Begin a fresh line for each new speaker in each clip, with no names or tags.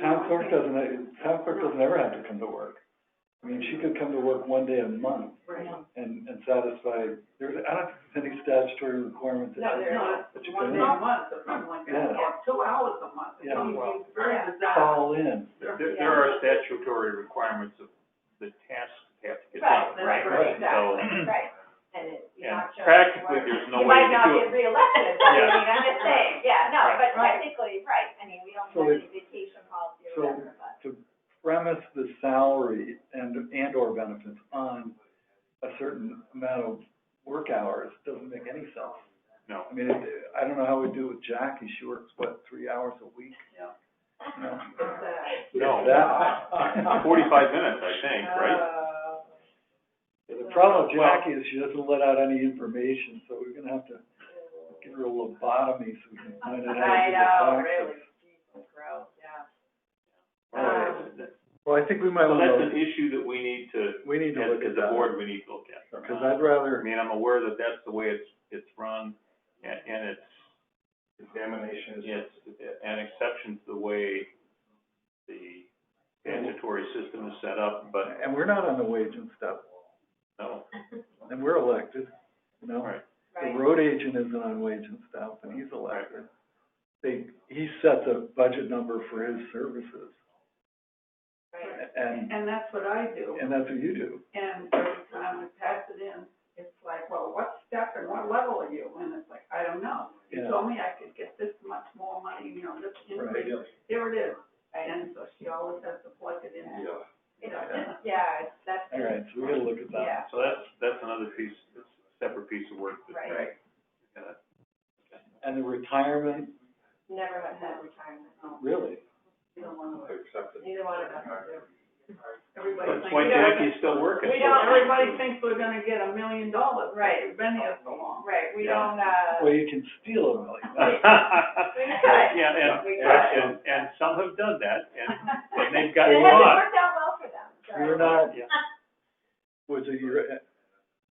Town clerk doesn't, town clerk doesn't ever have to come to work. I mean, she could come to work one day a month
Right.
and, and satisfy, there's, I don't think there's any statutory requirement that.
No,
you-
they're not.
that you
One
can
day
do.
a month or something like that,
Yeah.
or two hours a month, it's
Yeah.
something very bizarre.
Fall in.
There, there there are statutory requirements of the tasks that have to get done.
Right,
right,
Exactly,
so-
right, and it, you're
And
not showing.
practically,
work.
there's no
You
way
might
to
not
do
get
it.
reelected, but I
Yeah.
mean, I'm just saying, yeah, no,
Right.
but
Right.
technically, right, I mean, we don't
So
have
it-
any vacation policy
so-
or whatever, but.
premise the salary and, and or benefits on a certain amount of work hours doesn't make any sense.
No.
I mean, it- I don't know how we do it with Jackie, she works, what, three hours a week? No.
No.
That-
Forty-five minutes, I think,
Uh,
right?
The problem with Jackie is she doesn't let out any information, so we're gonna have to give her a lobotomy so we can find out how to do the taxes.
Jesus, gross, yeah.
Well, that's-
Well, I think we might
Oh, So that's
wanna,
an issue that we need to,
we need to
as,
look at
as a
that,
board, we need to look at.
cause I'd rather,
I mean, I'm aware that that's the way it's, it's run, and, and it's. Examinations. Yes, an exception to the way the statutory system is set up, but
and we're not on the wage and stuff,
no,
and we're elected, you know?
right,
The
Right,
road agent isn't on wage and stuff, and he's elected. They, he sets a budget number for his services,
right,
and,
And that's what I do,
and that's what you do.
and every time we pass it in, it's like, well, what step and what level are you? And it's like, I don't know. You
Yeah.
told me I could get this much more money, you know, this
Right.
increase, here it is.
right.
And so she always has to plug it in.
It's,
Yeah.
yeah, it's, that's,
All right, so we gotta look at that.
yeah,
so that's, that's another piece, that's a separate piece of work that,
right,
uh,
And the retirement,
never have had retirement,
really,
neither one of us do.
Everybody
that's
thinks.
why Jackie's still working.
We
You know,
don't-
everybody thinks we're gonna get a million dollars,
Right.
right? We've been here so long.
Right, we
Yeah.
don't, uh,
well, you can steal a million.
tried.
Yeah, and,
We tried.
and, and some have done that, and, and they've
it
gotten a
hasn't
lot.
worked out well for them, so.
You're not,
Yeah.
was it your,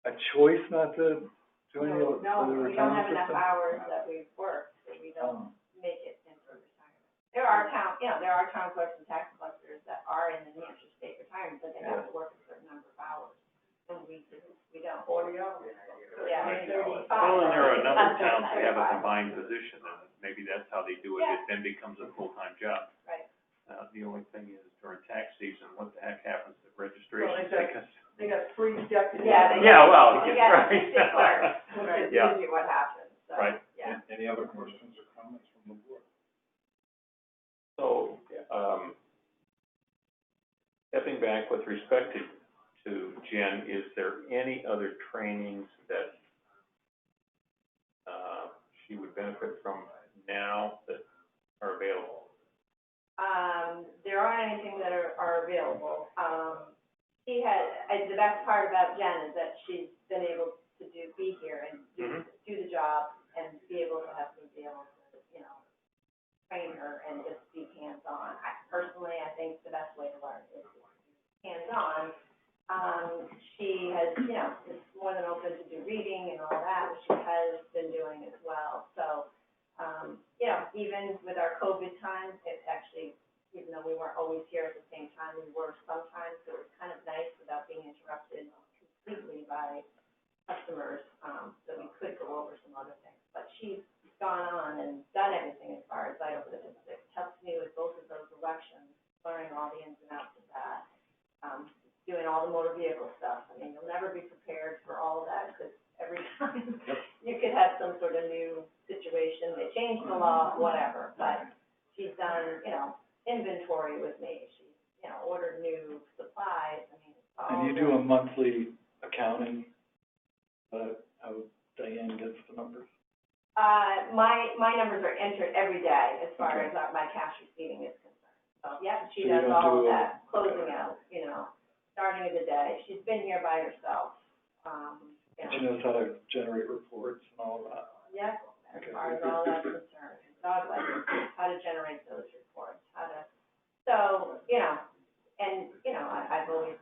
a choice not to join the,
No,
for the
No, we don't have
retirement
enough
system?
hours that we work, so we don't
Oh,
make it into retirement. There are town, you know, there are town clerks and tax collectors that are in the New Hampshire state retirement, but they have to work a certain number of hours. And we didn't, we don't. Forty hours. Yeah, thirty-five.
Well, and there are a number of
Under
towns that have a
35.
combined position, and maybe that's how they do it, it then becomes a full-time job.
Right.
Uh, the only thing is during tax season, what the heck happens to registration? Because-
They got three deputies.
Yeah, they-
Yeah, well,
You
yeah,
got a
right.
district clerk, which is
Yeah.
usually what happens, so,
Right.
yeah.
Any other questions or comments from the board?
So, um, stepping back with respect to, to Jen, is there any other trainings that, uh, she would benefit from now that are available?
Um, there aren't anything that are, are available. Um, she had, I, the best part about Jen is that she's been able to do, be here and do,
Mhm.
do the job and be able to have me be able to, you know, train her and just be hands-on. I personally, I think the best way to learn is hands-on. Um, she has, you know, is more than open to do reading and all that, which she has been doing as well. So, um, you know, even with our COVID time, it's actually even though we weren't always here at the same time, we were sometimes, so it was kind of nice without being interrupted completely by customers, um, so we could go over some other things. But she's gone on and done everything as far as I, it it helped me with both of those elections, learning all the ins and outs of that. Um, doing all the motor vehicle stuff, I mean, you'll never be prepared for all of that, because every time you could have some sort of new situation, they change the law, whatever, but she's done, you know, inventory with me. She, you know, ordered new supplies, I mean, it's all.
And you do a monthly accounting, uh, how Diane gets the numbers?
Uh, my, my numbers are entered every day as far
Okay.
as uh, my cash receiving is concerned. So, yeah,
So
she
you
does
don't
all of
do-
that, closing out, you know, starting of the day. She's been here by herself, um, you
She
know.
knows how to generate reports and all of that.
Yep, as
Okay.
far as all that's concerned, dog licenses, how to generate those reports, how to, so, you know, and, you know, I, I've always